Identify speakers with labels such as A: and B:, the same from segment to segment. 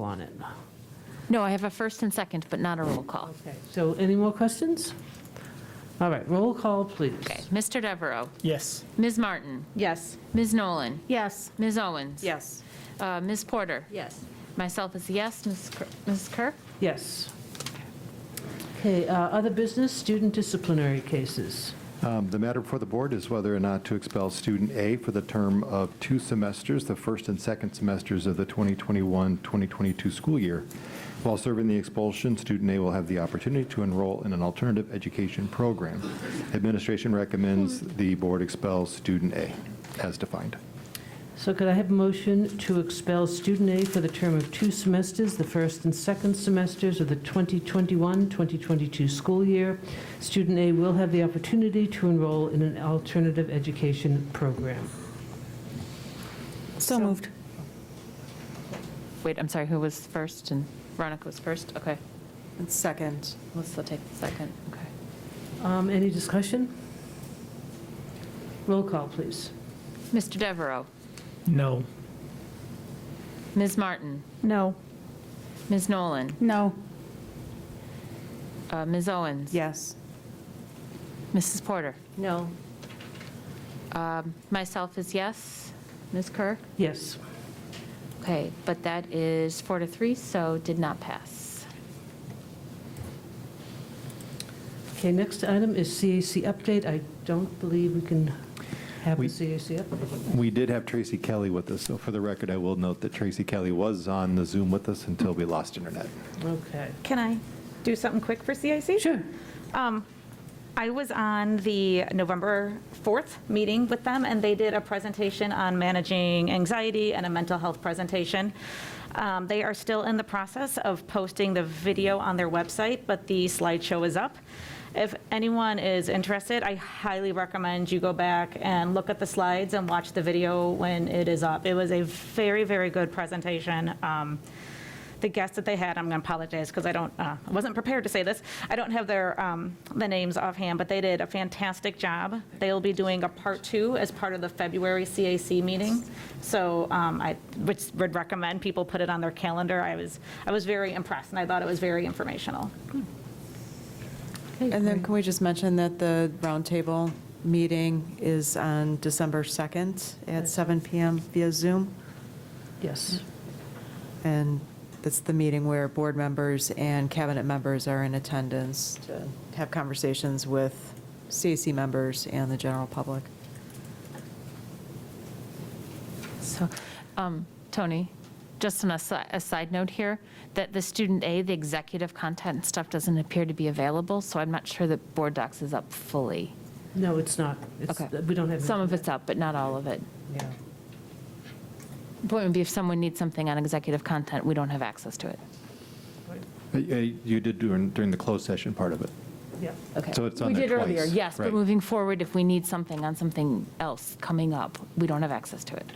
A: on it.
B: No, I have a first and second, but not a roll call.
A: Okay, so any more questions? All right, roll call, please.
B: Okay, Mr. Devereaux,
C: Yes.
B: Ms. Martin,
D: Yes.
B: Ms. Nolan,
D: Yes.
B: Ms. Owens.
D: Yes.
B: Uh, Ms. Porter.
D: Yes.
B: Myself is a yes. Ms. Kerr- Ms. Kerr?
A: Yes. Okay, uh, other business, student disciplinary cases.
E: Um, The matter before the board is whether or not to expel student A for the term of two semesters, the first and second semesters of the 2021-2022 school year. While serving the expulsion, student A will have the opportunity to enroll in an alternative education program. Administration recommends the board expel student A as defined.
A: So could I have a motion to expel student A for the term of two semesters, the first and second semesters of the 2021-2022 school year? Student A will have the opportunity to enroll in an alternative education program.
D: So moved.
B: Wait, I'm sorry, who was first? And Veronica was first? Okay.
D: And second.
B: Let's still take the second. Okay.
A: Um, Any discussion? Roll call, please.
B: Mr. Devereaux,
C: No.
B: Ms. Martin,
D: No.
B: Ms. Nolan,
D: No.
B: uh, Ms. Owens.
D: Yes.
B: Mrs. Porter.
D: No.
B: Um, Myself is yes. Ms. Kerr?
A: Yes.
B: Okay, but that is four to three, so did not pass.
A: Okay, next item is CAC update. I don't believe we can have a
E: We-
A: CAC update.
E: We did have Tracy Kelly with us, so for the record, I will note that Tracy Kelly was on the Zoom with us until we lost internet.
A: Okay.
F: Can I do something quick for CIC?
A: Sure.
F: Um, I was on the November 4th meeting with them, and they did a presentation on managing anxiety and a mental health presentation. Um, They are still in the process of posting the video on their website, but the slideshow is up. If anyone is interested, I highly recommend you go back and look at the slides and watch the video when it is up. It was a very, very good presentation. Um, the guests that they had, I'm going to apologize because I don't, uh, I wasn't prepared to say this. I don't have their, um, the names offhand, but they did a fantastic job. They'll be doing a part two as part of the February CAC meeting. So um, I would would recommend people put it on their calendar. I was, I was very impressed and I thought it was very informational.
D: And then can we just mention that the roundtable meeting is on December 2nd at 7 PM via Zoom?
A: Yes.
D: And it's the meeting where board members and cabinet members are in attendance to have conversations with CAC members and the general public.
B: So, um, Tony, just on a si- a side note here, that the student A, the executive content stuff doesn't appear to be available, so I'm not sure that Board Docs is up fully.
A: No, it's not. It's-
B: Okay.
A: We don't have.
B: Some of it's up, but not all of it.
A: Yeah.
B: Point would be if someone needs something on executive content, we don't have access to it.
E: Uh, You did during during the closed session part of it.
A: Yeah.
B: Okay.
E: So it's on there
B: We did earlier,
E: twice,
B: yes, but
E: right.
B: moving forward, if we need something on something else coming up, we don't have access to it.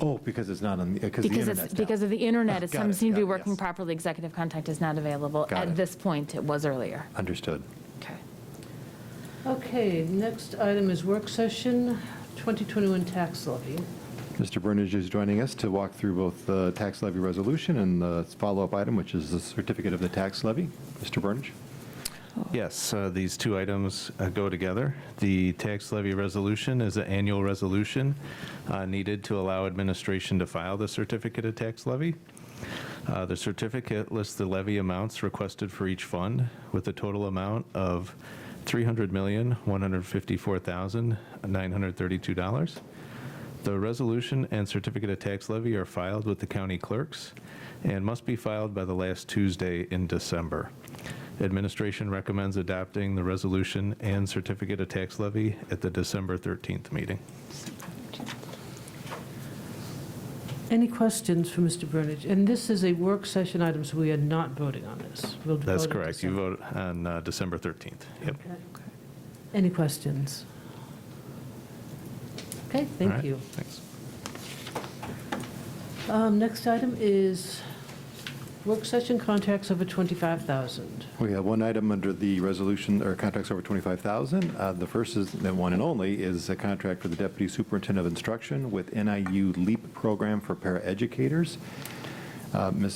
E: Oh, because it's not on, the because the
B: Because
E: internet's
B: it's,
E: down.
B: because of the internet,
E: Ah,
B: it
E: got
B: doesn't
E: it,
B: seem to be
E: got it,
B: working
E: yes.
B: properly. Executive contact is not available.
E: Got
B: At
E: it.
B: this point, it was earlier.
E: Understood.
B: Okay.
A: Okay, next item is work session, 2021 tax levy.
E: Mr. Burnage is joining us to walk through both the tax levy resolution and the follow-up item, which is the certificate of the tax levy. Mr. Burnage?
G: Yes, uh, these two items uh, go together. The tax levy resolution is an annual resolution uh, needed to allow administration to file the certificate of tax levy. Uh, The certificate lists the levy amounts requested for each fund with a total amount of $300,154,932. The resolution and certificate of tax levy are filed with the county clerks and must be filed by the last Tuesday in December. Administration recommends adopting the resolution and certificate of tax levy at the December 13th meeting.
A: Any questions for Mr. Burnage? And this is a work session item, so we are not voting on this. We'll
G: That's
A: vote it
G: correct. You
A: separate.
G: vote on uh, December 13th. Yep.
A: Okay. Any questions? Okay,
G: All
A: thank
G: right.
A: you.
G: Thanks.
A: Um, Next item is work session contracts over 25,000.
E: We have one item under the resolution, or contracts over 25,000. Uh, The first is, the one and only, is a contract for the Deputy Superintendent of Instruction with NIU LEAP program for paraeducators. Uh, Ms.